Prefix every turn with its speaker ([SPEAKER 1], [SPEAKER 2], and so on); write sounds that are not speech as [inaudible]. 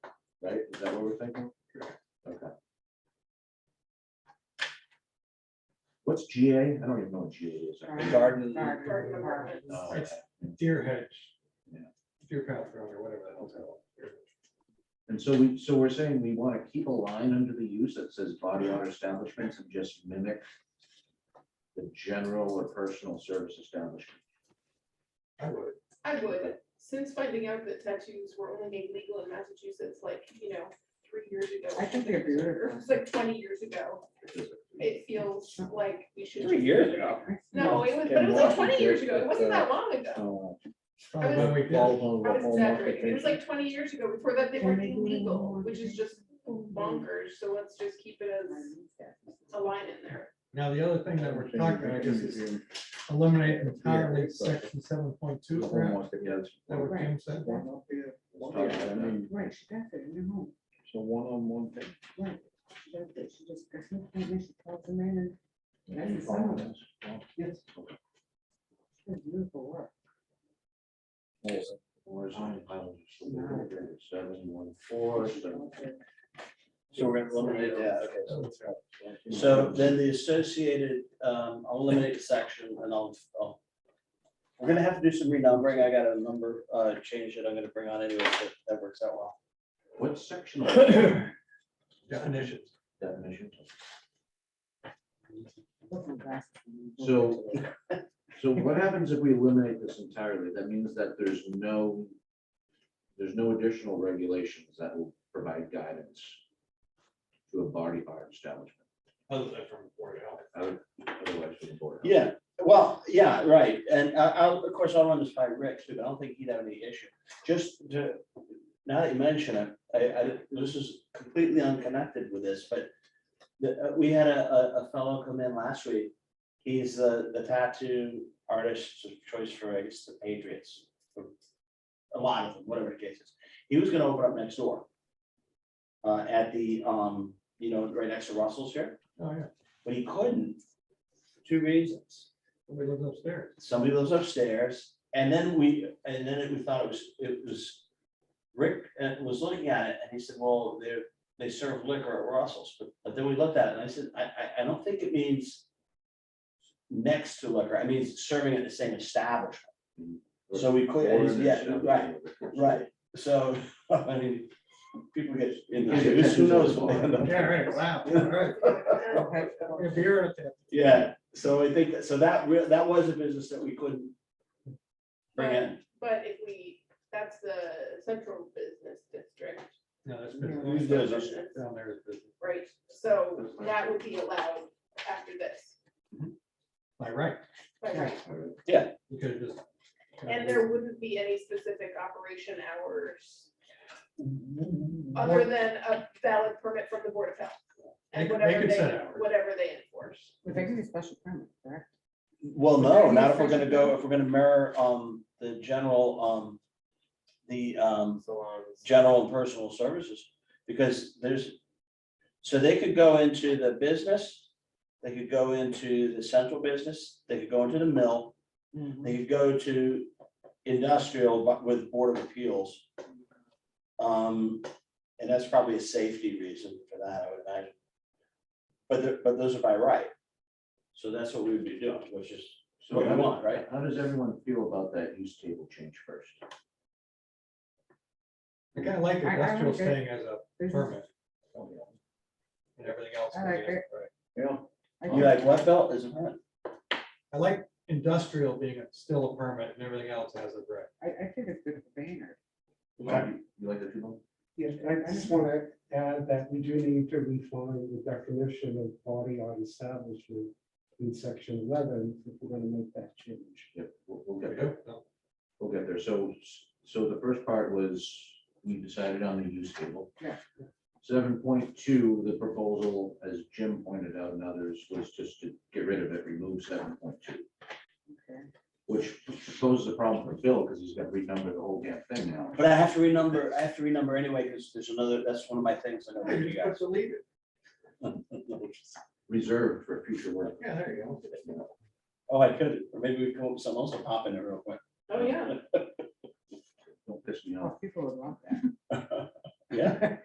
[SPEAKER 1] right? Is that what we're thinking? Okay. What's GA? I don't even know what GA is. Garden.
[SPEAKER 2] Garden. Garden apartments.
[SPEAKER 1] Oh,
[SPEAKER 3] It's-
[SPEAKER 1] okay.
[SPEAKER 3] Deer hedge.
[SPEAKER 1] Yeah.
[SPEAKER 3] Deer path road or whatever the hell's that.
[SPEAKER 1] And so we, so we're saying we want to keep a line under the use that says body art establishments and just mimic the general or personal service establishment.
[SPEAKER 3] I would.
[SPEAKER 4] I would, since finding out that tattoos were only made legal in Massachusetts, like, you know, three years ago.
[SPEAKER 2] I think we agree with
[SPEAKER 4] Or it
[SPEAKER 2] her.
[SPEAKER 4] was like twenty years ago, it feels like we should.
[SPEAKER 5] years ago.
[SPEAKER 4] No, it was,
[SPEAKER 5] In
[SPEAKER 4] but it was like twenty
[SPEAKER 5] Washington,
[SPEAKER 4] years ago, it wasn't
[SPEAKER 5] uh,
[SPEAKER 4] that long ago,
[SPEAKER 1] Oh,
[SPEAKER 3] Oh,
[SPEAKER 4] was-
[SPEAKER 3] when we did-
[SPEAKER 4] I was exaggerating, it was like twenty years ago, before that they were illegal, which is just
[SPEAKER 2] Oh,
[SPEAKER 4] bonkers, so let's just keep it as a line in there. [laughs]
[SPEAKER 3] Now, the other thing that we're talking about is eliminate entirely section seven point two,
[SPEAKER 1] The home
[SPEAKER 3] that
[SPEAKER 1] office, yeah, that's-
[SPEAKER 3] what Jim said.
[SPEAKER 1] let's talk about that.
[SPEAKER 2] Right, she got that in her home,
[SPEAKER 5] So one on one thing.
[SPEAKER 2] right. She got that, she just, that's no problem, she calls them in and. That's the
[SPEAKER 5] Well,
[SPEAKER 2] sound. Yes. That's Beautiful work.
[SPEAKER 1] Horizontal panels, so we're gonna do Seven, one, four, seven.
[SPEAKER 5] So we're gonna eliminate that, okay. so-
[SPEAKER 6] So then the associated, um, I'll eliminate a section and I'll, I'll. We're gonna have to do some renumbering. I got a number, uh, change that I'm gonna bring on anyway, so that works out well.
[SPEAKER 1] What section of that
[SPEAKER 3] Definitions.
[SPEAKER 1] definition?
[SPEAKER 2] Put some glasses on.
[SPEAKER 1] So, so what happens if we eliminate this entirely? That means that there's no, there's no additional regulations that will provide guidance to a body art establishment,
[SPEAKER 3] Other than from Board of Health.
[SPEAKER 1] other- otherwise from the board. of health.
[SPEAKER 6] Yeah, well, yeah, right. And I, I, of course, I'll run this by Rick too, but I don't think he'd have any issue. Just to, now that you mention it, I, I, this is completely unconnected with this, but the, uh, we had a, a, a fellow come in last week. He's the, the tattoo artist of choice for, I guess, the Patriots. for A lot of them, whatever the case is. He was gonna open up next door. Uh, at the, um, you know, right next to Russell's here,
[SPEAKER 3] Oh, yeah.
[SPEAKER 6] but he couldn't. for Two reasons
[SPEAKER 3] We lived upstairs.
[SPEAKER 6] somebody lives upstairs, and then we, and then it- we thought it was, it was. Rick uh, was looking at it, and he said, well, they they serve liquor at Russell's, but, but then we looked at it, and I said, I, I, I don't think it means. Next to liquor, I mean, serving at the same establishment, so we
[SPEAKER 1] Or
[SPEAKER 6] could, and he said,
[SPEAKER 1] an
[SPEAKER 6] yeah, right,
[SPEAKER 1] establishment.
[SPEAKER 6] right, so, [laughs] I mean. People get, in
[SPEAKER 1] Yeah, it
[SPEAKER 6] who knows? what they end up-
[SPEAKER 3] Yeah, right, wow, all right. If you're at that.
[SPEAKER 6] [laughs] Yeah, so I think, that so that, re- that was a business that we couldn't. Bring in.
[SPEAKER 4] But if we, that's the central business district,
[SPEAKER 3] No, that's
[SPEAKER 2] No.
[SPEAKER 3] been.
[SPEAKER 6] Who's does this?
[SPEAKER 3] Down there is business.
[SPEAKER 4] right, so that would be allowed after this,
[SPEAKER 3] By right,
[SPEAKER 4] by right?
[SPEAKER 1] All right.
[SPEAKER 3] you could have just.
[SPEAKER 4] And there wouldn't be any specific operation hours other
[SPEAKER 3] Or-
[SPEAKER 4] than a valid permit from the Board of Health.
[SPEAKER 3] They
[SPEAKER 4] And
[SPEAKER 3] could- they
[SPEAKER 4] whatever
[SPEAKER 3] could
[SPEAKER 4] they,
[SPEAKER 3] set hours.
[SPEAKER 4] whatever they enforce.
[SPEAKER 2] But they give you special permit, correct?
[SPEAKER 6] Well,
[SPEAKER 2] Very
[SPEAKER 6] no,
[SPEAKER 2] good
[SPEAKER 6] not if we're
[SPEAKER 2] question.
[SPEAKER 6] gonna go, if we're gonna mirror, um, the general, um, the, um, general and personal services, because there's, so they could go into the business, they could go into the central business, they could go into the mill, they could go to industrial, but with Board of Appeals. Um, and that's probably a safety reason for that, I would imagine. But, the- but those are by right. So that's what we would be doing, which is what we want, right?
[SPEAKER 1] How does everyone feel about that use table change first?
[SPEAKER 3] I kind of like
[SPEAKER 2] I- I
[SPEAKER 3] industrial
[SPEAKER 2] like it.
[SPEAKER 3] staying as a
[SPEAKER 2] Business-
[SPEAKER 3] permit. And everything else.
[SPEAKER 2] I like
[SPEAKER 3] being-
[SPEAKER 2] it.
[SPEAKER 3] right.
[SPEAKER 5] Yeah,
[SPEAKER 2] I
[SPEAKER 6] You like what belt is it?
[SPEAKER 3] I like industrial being a- still a permit and everything else has a right.
[SPEAKER 2] I, I think it's good for Vayner.
[SPEAKER 1] You you like that, people?
[SPEAKER 7] Yes, I just want to add that we do need to refine the definition of body art establishment in section eleven, if we're going to make that change.
[SPEAKER 1] Yeah, we'll, we'll
[SPEAKER 3] We
[SPEAKER 1] get there.
[SPEAKER 3] do? No.
[SPEAKER 1] We'll get there. So, so the first part was, we decided on the use table.
[SPEAKER 2] Yeah.
[SPEAKER 1] Seven point two, the proposal, as Jim pointed out and others, was just to get rid of it, remove seven point two,
[SPEAKER 2] Okay.
[SPEAKER 1] which poses a problem for Bill, because he's got to renumber the whole damn thing now.
[SPEAKER 6] But I have to renumber, I have to renumber anyway, because there's another, that's one of my things that I'm gonna do, guys. [laughs]
[SPEAKER 1] Reserved for future work.
[SPEAKER 3] Yeah, there you go.
[SPEAKER 6] Oh, I could, or maybe we come up with something else, I'll pop in it real quick.
[SPEAKER 4] Oh, yeah.
[SPEAKER 1] Don't piss me off.
[SPEAKER 2] Oh, People would love that.
[SPEAKER 6] Yeah.